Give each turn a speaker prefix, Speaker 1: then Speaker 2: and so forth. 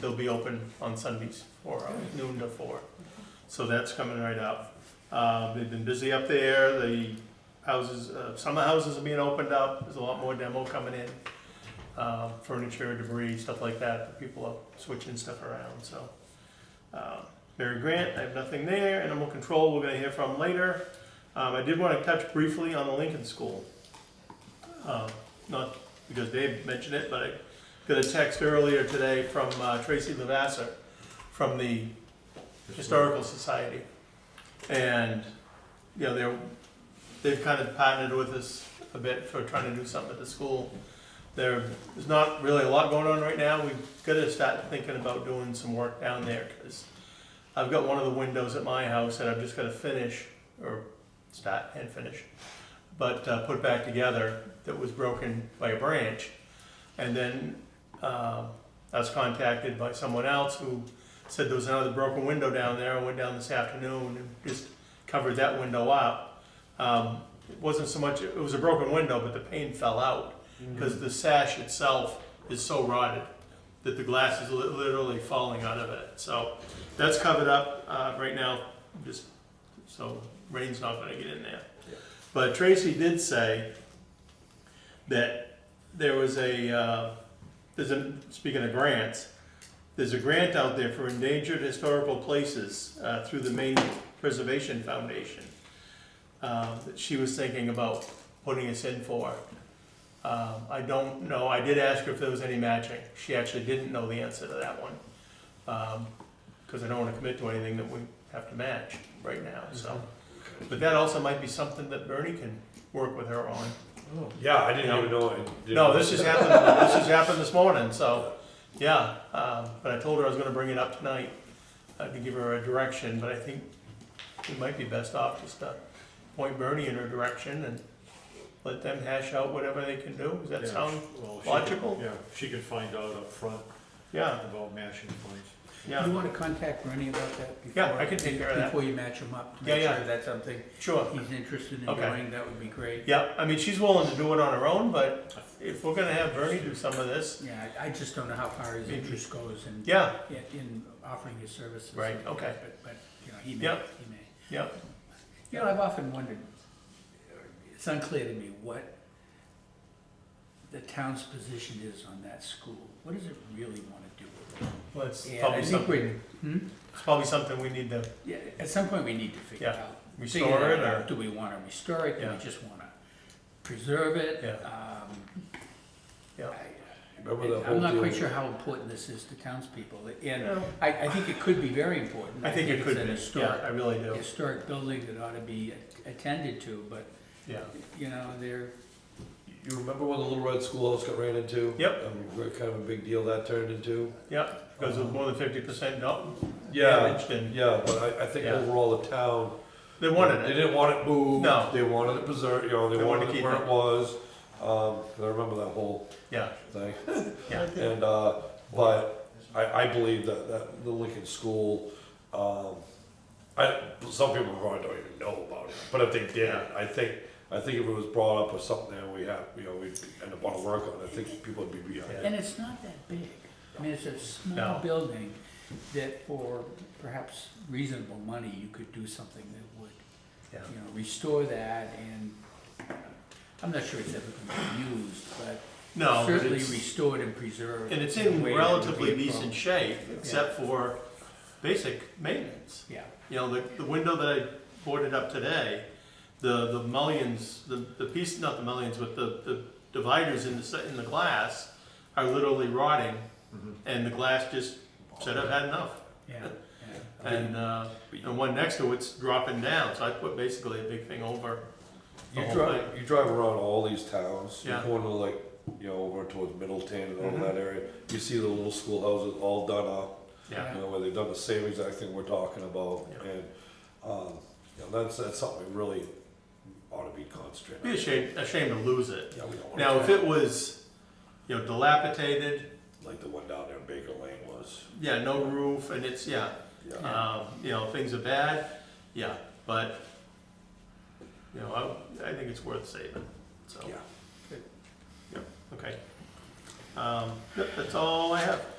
Speaker 1: they'll be open on Sundays for uh, noon to four. So that's coming right up. Uh, they've been busy up there, the houses, uh, summer houses are being opened up, there's a lot more demo coming in. Uh, furniture, debris, stuff like that, people are switching stuff around, so. Uh, Mary Grant, I have nothing there, animal control, we're gonna hear from later. Um, I did wanna touch briefly on the Lincoln School. Uh, not because Dave mentioned it, but I got a text earlier today from uh, Tracy Lavasser from the Historical Society. And, you know, they're, they've kind of partnered with us a bit for trying to do something at the school. There, there's not really a lot going on right now, we've got to start thinking about doing some work down there, because I've got one of the windows at my house that I've just got to finish, or start and finish, but uh, put back together, that was broken by a branch. And then uh, I was contacted by someone else who said there was another broken window down there. I went down this afternoon and just covered that window up. Um, It wasn't so much, it was a broken window, but the pane fell out because the sash itself is so rotted that the glass is li- literally falling out of it. So that's covered up uh, right now, just so rain's not gonna get in there.
Speaker 2: Yeah.
Speaker 1: But Tracy did say that there was a, uh, there's a, speaking of grants, there's a grant out there for endangered historical places uh, through the Maine Preservation Foundation uh, that she was thinking about putting us in for. Um, I don't know, I did ask her if there was any matching. She actually didn't know the answer to that one. Because I don't want to commit to anything that we have to match right now, so. But that also might be something that Bernie can work with her on.
Speaker 2: Yeah, I didn't even know. I did.
Speaker 1: No, this has happened, this has happened this morning, so, yeah, um, but I told her I was gonna bring it up tonight, uh, to give her a direction, but I think it might be best off just to point Bernie in her direction and let them hash out whatever they can do, does that
Speaker 3: Yeah,
Speaker 1: sound?
Speaker 3: well, she could-
Speaker 1: logical?
Speaker 3: Yeah, she could find out up front
Speaker 1: Yeah,
Speaker 3: about matching points.
Speaker 4: You
Speaker 1: yeah,
Speaker 4: want to contact Bernie about that before?
Speaker 1: Yeah, I can take care of that.
Speaker 4: Before you match him up, to
Speaker 1: Yeah,
Speaker 4: make
Speaker 1: yeah.
Speaker 4: sure that's something
Speaker 1: sure,
Speaker 4: he's interested in
Speaker 1: Okay.
Speaker 4: doing, that would be great.
Speaker 1: yeah, I mean, she's willing to do it on her own, but if we're gonna have Bernie do some of this,
Speaker 4: Yeah, I I just don't know how far his
Speaker 1: Maybe.
Speaker 4: interest goes in,
Speaker 1: yeah,
Speaker 4: in offering his services.
Speaker 1: Right, okay.
Speaker 4: But, but, you know, he may,
Speaker 1: Yep.
Speaker 4: he may.
Speaker 1: yeah,
Speaker 4: You know, I've often wondered, it's unclear to me what the town's position is on that school. What does it really want to do with it?
Speaker 1: well, it's
Speaker 4: And I
Speaker 1: probably
Speaker 4: think
Speaker 1: something,
Speaker 4: Hmm?
Speaker 1: it's probably something we need to
Speaker 4: Yeah, at some point, we need to figure
Speaker 1: Yeah.
Speaker 4: out.
Speaker 1: Restore
Speaker 4: figure
Speaker 1: it,
Speaker 4: out.
Speaker 1: or-
Speaker 4: Do we wanna restore it, do
Speaker 1: Yeah.
Speaker 4: we just wanna preserve it?
Speaker 1: Yeah.
Speaker 4: Um,
Speaker 1: Yeah.
Speaker 4: I-
Speaker 2: Remember the whole
Speaker 4: I'm not
Speaker 2: deal
Speaker 4: quite
Speaker 2: with-
Speaker 4: sure how important this is to townspeople,
Speaker 1: Yeah.
Speaker 4: and I, I think it could be very important.
Speaker 1: I think it could
Speaker 4: It's an
Speaker 1: be, yeah, I
Speaker 4: historic,
Speaker 1: really do,
Speaker 4: historic building that ought to be attended to, but,
Speaker 1: yeah,
Speaker 4: you know, they're,
Speaker 2: You remember when the Little Red Schoolhouse got ran into?
Speaker 1: Yep.
Speaker 2: Um, what kind of a big deal that turned into?
Speaker 1: yeah, because of more than fifty percent
Speaker 2: Yeah,
Speaker 1: damaged and
Speaker 2: yeah, but I, I think
Speaker 1: Yeah.
Speaker 2: overall the town.
Speaker 1: they wanted
Speaker 2: They
Speaker 1: it.
Speaker 2: didn't want it moved.
Speaker 1: No.
Speaker 2: They wanted it preserved, you know, they
Speaker 1: They wanted
Speaker 2: wanted
Speaker 1: to
Speaker 2: it
Speaker 1: keep
Speaker 2: where
Speaker 1: it.
Speaker 2: it was. Um, 'cause I remember that whole
Speaker 1: Yeah,
Speaker 2: thing.
Speaker 1: yeah,
Speaker 2: And, uh, but I, I believe that, that the Lincoln School, um, I, some people probably don't even know about it, but if they did, I think, I think if it was brought up or something that we have, you know, we'd end up on a work on, it, I think people would be behind it.
Speaker 4: and it's not that big. I mean, it's a
Speaker 1: No.
Speaker 4: small building that for perhaps reasonable money, you could do something that would
Speaker 1: yeah.
Speaker 4: you know, restore that and, uh, I'm not sure it's ever gonna be used, but
Speaker 1: No, but
Speaker 4: certainly
Speaker 1: it's,
Speaker 4: restored and preserved.
Speaker 1: and it's in
Speaker 4: a way that would be
Speaker 1: relatively
Speaker 4: a pro-
Speaker 1: decent shape, except for basic maintenance.
Speaker 4: Yeah,
Speaker 1: You know, the, the window that I boarded up today, the, the mullions, the, the piece, not the mullions, but the, the dividers in the, se- in the glass are literally rotting,
Speaker 3: Mm-hmm.
Speaker 1: and the glass just said, I've had enough.
Speaker 4: yeah, yeah.
Speaker 1: And, uh, and one next to it's dropping down, so I put basically a big thing over the
Speaker 2: You
Speaker 1: whole thing.
Speaker 2: drive, Oh, you drive around all these towns, you
Speaker 1: Yeah.
Speaker 2: go into like, you know, over towards Middletown and all that area, you see the little schoolhouses all done up.
Speaker 1: Yeah,
Speaker 2: You know, where they've done the same exact thing we're talking about,
Speaker 1: Yeah.
Speaker 2: and, um, you know, that's, that's something we really ought to be concentrating.
Speaker 1: be
Speaker 2: on.
Speaker 1: ashamed, ashamed to lose it.
Speaker 2: Yeah, we don't wanna
Speaker 1: Now, if
Speaker 2: have
Speaker 1: it was, you know, dilapidated,
Speaker 2: Like the one down there in Baker Lane was,
Speaker 1: yeah, no roof, and it's, yeah,
Speaker 2: yeah,
Speaker 1: um, you know, things are bad, yeah, but, you know, I, I think it's worth saving, so,
Speaker 2: yeah.
Speaker 1: okay. Um, yep, that's all I have.